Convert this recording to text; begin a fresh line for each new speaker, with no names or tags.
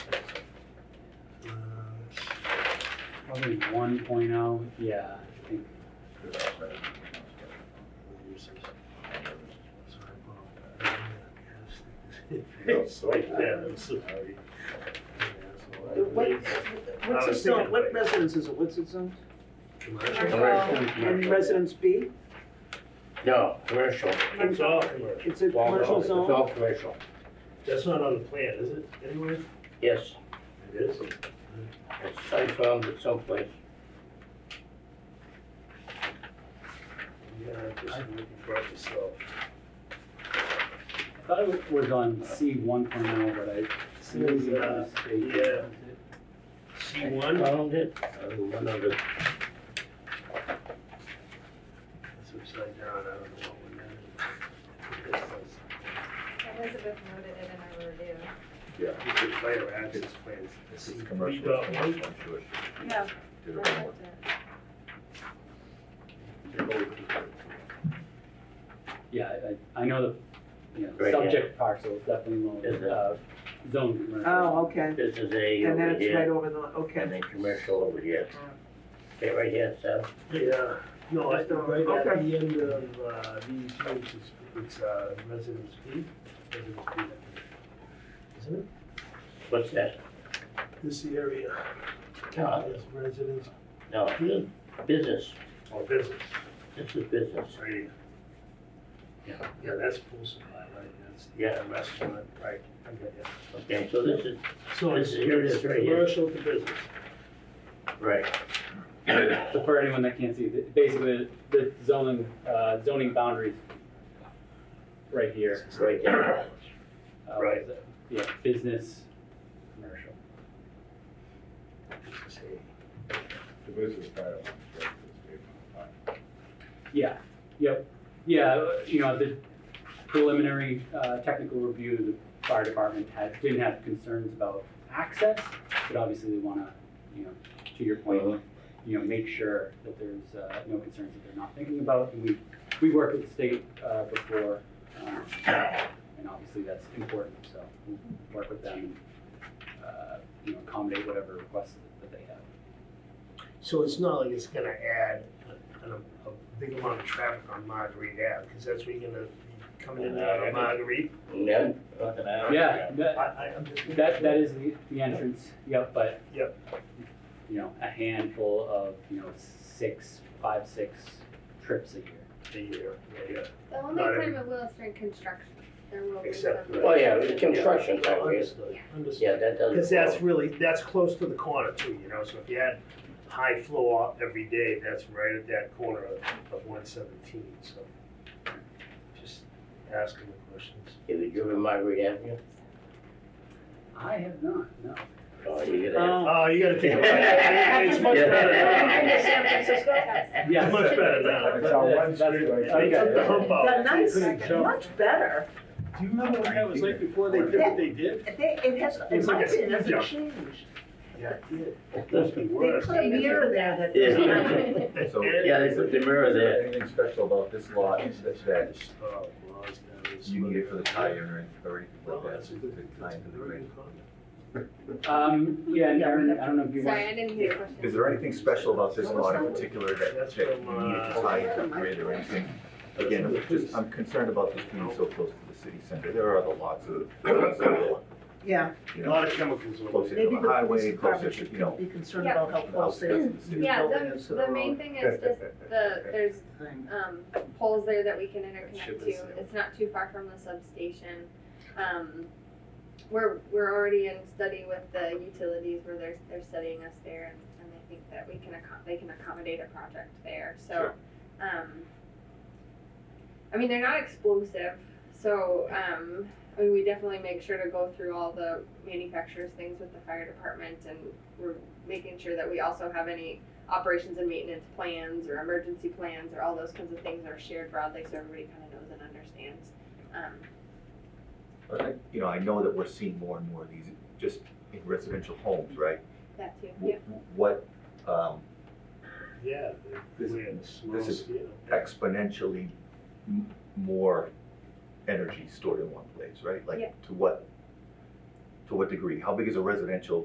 Probably one oh, yeah, I think.
It's like that, I'm
sorry.
What, what's it zone, what residence is it, what's it zone? And residence B,
No, commercial, it's
It's all
commercial.
it's a commercial zone?
all commercial,
That's not on the plan, is it, anyway?
yes,
It is.
it's, I found it someplace.
Yeah, I'm just looking for it myself. I thought it was on C one oh, but I.
was,
Yeah.
uh,
Yeah. C
I Found it, Uh, I went under,
It's upside down, I don't know what one that is.
Elizabeth noted it in her review.
It's a fire access plan.
This is commercial,
We got
it's commercial, I'm sure. she
Yeah.
Did it wrong.
Yeah, I, I I know the, you know,
Right,
subject parcel is definitely
Is
low,
it?
uh, zone commercial.
Oh, okay,
this is A
and then
over
it's right
here,
over the,
and
okay.
then commercial over here. Okay, right here, so,
Yeah, no, I thought right at
Okay.
the end of uh, these roads, it's- it's uh, residence B, residence B, I think. Isn't it?
what's that?
This area,
No,
is residence
no, business,
or business,
this is business,
right here. Yeah, yeah, that's pool supply, right, that's
yeah,
the restaurant, right, I get it.
okay, so this is,
So
This
it's,
is- here it
it's
is, right here.
commercial to business.
right,
Oh.
So for anyone that can't see, the- basically the zoning, uh, zoning boundaries right here.
right there,
uh,
Right.
Yeah, business, commercial.
The business title.
Yeah, yep, yeah, you know, the preliminary, uh, technical review, the fire department had, didn't have concerns about access, but obviously they wanna, you know, to your point, you know, make sure that there's, uh, no concerns that they're not thinking about, and we, we worked with the state, uh, before, um, and obviously that's important, so we'll work with them, uh, you know, accommodate whatever requests that they have.
So it's not like it's gonna add a, an- a big amount of traffic on Marguerite Ave, because that's where you're gonna be coming in and out of Marguerite.
and then, look at that.
Yeah, that-
I, I, I'm just.
That, that is the, the entrance, yep, but.
Yep.
You know, a handful of, you know, six, five, six trips a year.
A year, yeah, yeah.
The only
Not
time it will is during construction, there will be some.
Except for-
Oh, yeah, it's construction,
Yeah,
that is,
Understood, understood.
yeah, that doesn't.
Because that's really, that's close to the corner too, you know, so if you had high flow up every day, that's right at that corner of, of one seventeen, so. Just asking the questions.
Have you driven Margaret Avenue?
I have not, no.
Oh, you gotta.
Oh, you gotta think about that, it's much better now.
Yeah.
It's much better
It's
now.
on one
That's- that's-
street right
I
They
there.
took the hump
The
out.
nice,
Couldn't jump.
much better.
Do you remember what that was like before
they did what
they did?
They, it has, in
It's
my
like a
opinion, it
step
hasn't changed.
Yeah, it did. It must be
They
worse.
put a mirror there that.
Yeah.
So-
Yeah, they put the mirror there.
Anything special about this lot, is that that
Oh, well, it's gotta be
you need it for the tie in or or anything
Well,
like that?
that's a good,
to tie
that's a
into the
very
grid.
good comment.
Um, yeah, and Aaron, I don't know if you
Sorry,
want.
I didn't hear your question.
Is there anything special about this lot in particular that,
That's
that you
from,
need to
uh,
tie into the grid or anything? Again, just, I'm concerned about this being so close to the city center, there are other lots of, lots of,
Yeah,
you
A
know,
lot of chemicals. over
closer
there.
to the
Maybe the police
highway, closer
department
to,
should
you know.
be concerned about how close they
outskirts
are.
of the city.
Yeah,
building is to
the,
the
the main
road.
thing is just the, there's,
thing.
um, poles there that we can
Ship
interconnect
is
to.
there.
It's not too far from the substation. Um, we're, we're already in study with the utilities where they're, they're studying us there and, and they think that we can accom- they can accommodate a project there, so. Um, I mean, they're not explosive, so, um, I mean, we definitely make sure to go through all the manufacturers' things with the fire department and we're making sure that we also have any operations and maintenance plans or emergency plans or all those kinds of things are shared broadly so everybody kind of knows and understands. Um,
But I- You know, I know that we're seeing more and more of these, just in residential homes, right?
that too, yeah.
W- What, um,
Yeah, they're
This-
weird, small
this is
scale.
exponentially m- more energy stored in one place, right?
Yeah.
Like, to what, to what degree? How big is a residential